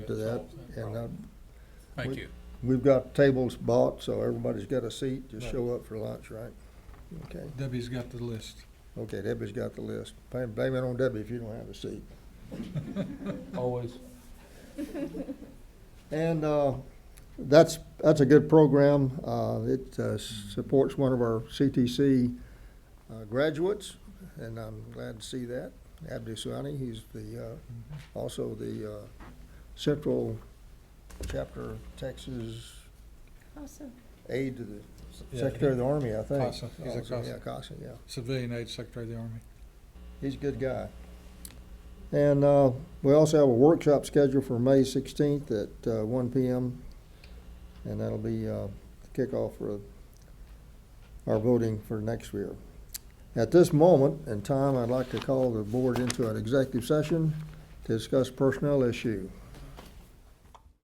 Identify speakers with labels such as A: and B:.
A: to that.
B: solves that
A: And uh,
B: problem. Thank
A: we-
B: you.
A: we've got tables bought, so everybody's got a seat. Just
C: Right.
A: show up for lunch, right? Okay,
C: Debbie's got the list.
A: okay, Debbie's got the list. Blame blame it on Debbie if you don't have a seat.
D: Always.
A: And uh, that's, that's a good program. Uh, It uh, supports one of our CTC uh, graduates, and I'm glad to see that. Abdi Suani, he's the, uh, also the uh, Central Chapter Texas
E: Awesome.
A: Aide to the
C: Yeah,
A: Secretary of the Army, I think.
C: CASA. He's a
A: Also,
C: CASA.
A: Yeah, CASA, yeah.
C: Civilian aid secretary of the army.
A: He's a good guy. And uh, we also have a workshop scheduled for May 16th at uh, 1 PM. And that'll be uh, the kickoff for our voting for next year. At this moment in time, I'd like to call the board into an executive session to discuss personnel issue.